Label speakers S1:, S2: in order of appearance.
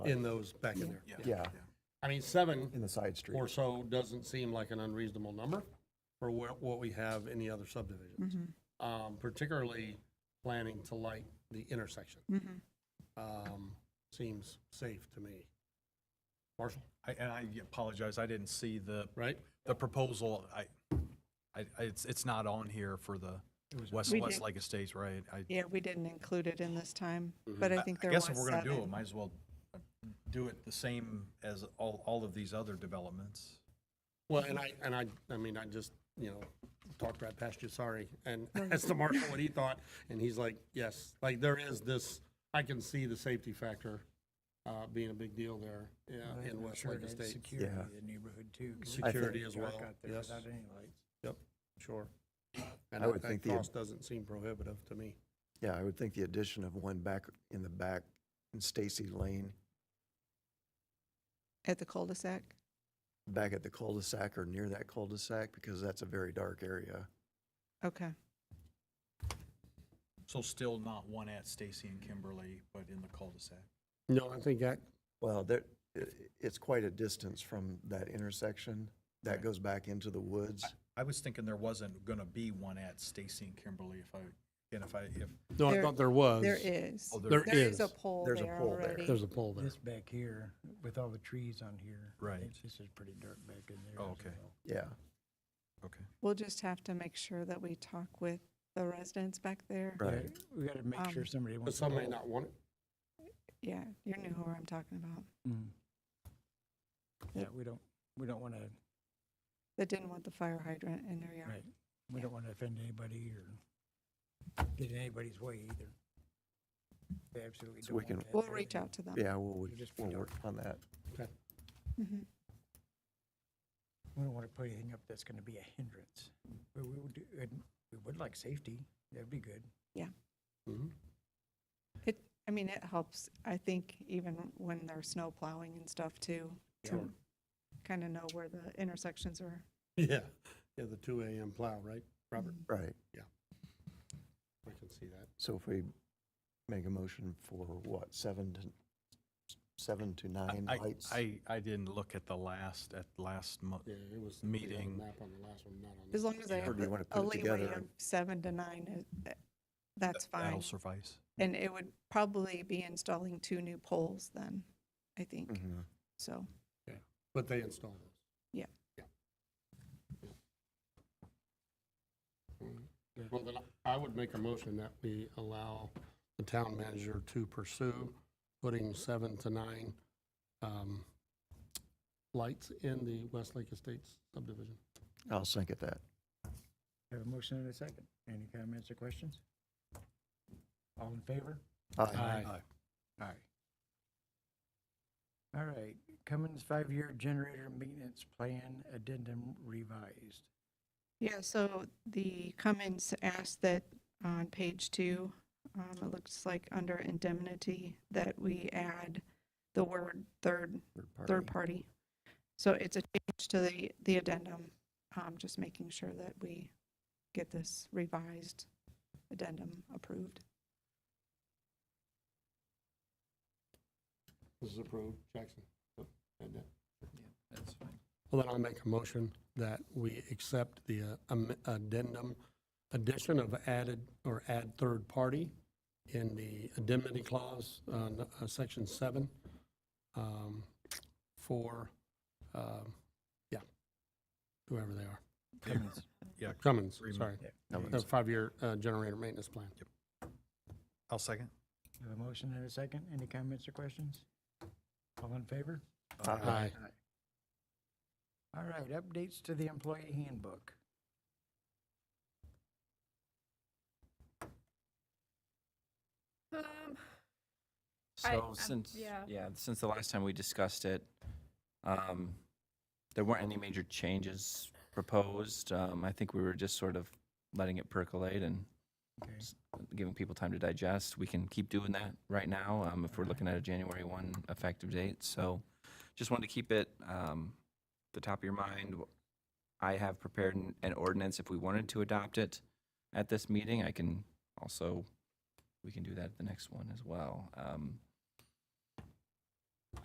S1: in those, back in there.
S2: yeah,
S1: I mean, seven
S2: in the side street.
S1: or so doesn't seem like an unreasonable number for what, what we have in the other subdivisions. Um, particularly planning to light the intersection. Um, seems safe to me. Marshall,
S3: I, and I apologize, I didn't see the,
S1: right?
S3: the proposal, I, I, I- it's, it's not on here for the West,
S4: We did.
S3: Westlake Estates, right? I,
S4: Yeah, we didn't include it in this time,
S2: Mm-hmm.
S4: but I
S3: I
S4: think
S3: I
S4: there was
S3: guess if we're gonna do it,
S4: seven.
S3: might as well do it the same as all, all of these other developments.
S1: Well, and I, and I, I mean, I just, you know, talked right past you, sorry, and asked the marshal what he thought, and he's like, yes, like, there is this, I can see the safety factor, uh, being a big deal there, yeah, in Westlake Estates.
S5: Security
S2: Yeah.
S5: in the neighborhood too. 'cause it's
S1: Security as
S5: dark
S1: well,
S5: out there
S1: yes,
S5: Without any lights.
S1: yep, sure. And
S2: I would
S1: that- that
S2: think the-
S1: cost doesn't seem prohibitive to me.
S2: Yeah, I would think the addition of one back in the back in Stacy Lane,
S4: At the cul-de-sac?
S2: back at the cul-de-sac or near that cul-de-sac, because that's a very dark area.
S4: Okay,
S3: So still not one at Stacy and Kimberly, but in the cul-de-sac.
S1: No, I think that.
S2: Well, there, i- i- it's quite a distance from that intersection. That goes back into the woods.
S3: I was thinking there wasn't gonna be one at Stacy and Kimberly if I, and if I, if,
S1: No,
S4: I There- thought
S1: there was.
S4: there is.
S3: Oh, there
S4: There is
S1: is.
S4: a pole
S2: There's a
S4: there
S2: pole there.
S4: already.
S1: a pole
S5: This back here, with all the trees on here.
S3: Right.
S5: it's- This is pretty dark back in there.
S3: Oh,
S5: as
S3: okay.
S5: well.
S2: Yeah,
S3: okay.
S4: We'll just have to make sure that we talk with the residents back there.
S2: right.
S5: Yeah, We gotta make sure
S4: Um,
S5: somebody
S1: But
S5: wants.
S1: some
S5: to
S1: may
S5: go.
S1: not want it.
S4: Yeah, you knew who I'm talking about,
S5: Mm. Yeah, we don't, we don't wanna,
S4: that didn't want the fire hydrant in their yard.
S5: right, we don't wanna offend anybody or get in anybody's way either. We Absolutely.
S2: So
S5: don't
S2: we
S5: want
S2: can-
S5: that
S4: We'll
S5: there.
S4: reach out to them.
S2: Yeah, we'll,
S5: It'll just be
S2: we'll
S5: dark.
S2: work on that.
S4: Mhm.
S5: We don't wanna put anything up that's gonna be a hindrance. But we would, do- and we would like safety, that'd be good.
S1: Mhm.
S4: It, I mean, it helps, I think, even when there's snow plowing and stuff too, to kind of know where the intersections are.
S1: Yeah, yeah, the two AM plow, right, Robert?
S2: Right.
S4: Mm-hmm.
S1: I can see that.
S2: So if we make a motion for what, seven to, seven to nine
S3: I,
S2: lights?
S3: I, I didn't look at the last, at last month.
S1: Yeah, it was. on the other
S3: Meeting.
S1: Map on the last one, not on.
S4: As
S1: this.
S4: long as I
S2: Or
S4: have
S2: do you wanna
S4: a
S2: put it
S4: leeway
S2: together?
S4: of seven to nine, uh, uh, that's fine.
S3: That'll suffice.
S4: And it would probably be installing two new poles then, I think,
S2: Mhm.
S4: so.
S1: But they installed those.
S4: Yeah.
S1: Yeah. Yeah. Well, then I would make a motion that we allow the town manager to pursue putting seven to nine um, lights in the Westlake Estates subdivision.
S2: I'll second that.
S5: Have a motion and a second. Any comments or questions? All in favor?
S2: Aye.
S5: Aye. All right, Cummins five-year generator maintenance plan addendum revised.
S4: Yeah, so the Cummins asked that on page two, um, it looks like under indemnity, that we add the word third third party. So it's a change to the, the addendum, um, just making sure that we get this revised addendum approved.
S1: This is approved, Jackson. Yep, and that-
S3: That's fine.
S1: Well, then I'll make a motion that we accept the uh, am- addendum, addition of added, or add third party in the indemnity clause, uh, n- uh, section seven, um, for, um, yeah, whoever they are.
S5: Cummins.
S3: Yeah,
S1: Cummins,
S3: Agreement.
S1: sorry.
S2: Cummins.
S1: The five-year uh, generator maintenance plan.
S3: I'll second.
S5: Have a motion and a second. Any comments or questions? All in favor?
S1: Aye.
S5: All right, updates to the employee handbook.
S6: Um, I-
S7: So
S6: I'm-
S7: since,
S6: yeah.
S7: yeah, since the last time we discussed it, um, there weren't any major changes proposed. Um, I think we were just sort of letting it percolate and
S5: Okay.
S7: s- giving people time to digest. We can keep doing that right now, um, if we're looking at a January one effective date. So just wanted to keep it, um, the top of your mind. I have prepared an, an ordinance if we wanted to adopt it at this meeting. I can also, we can do that at the next one as well. Um,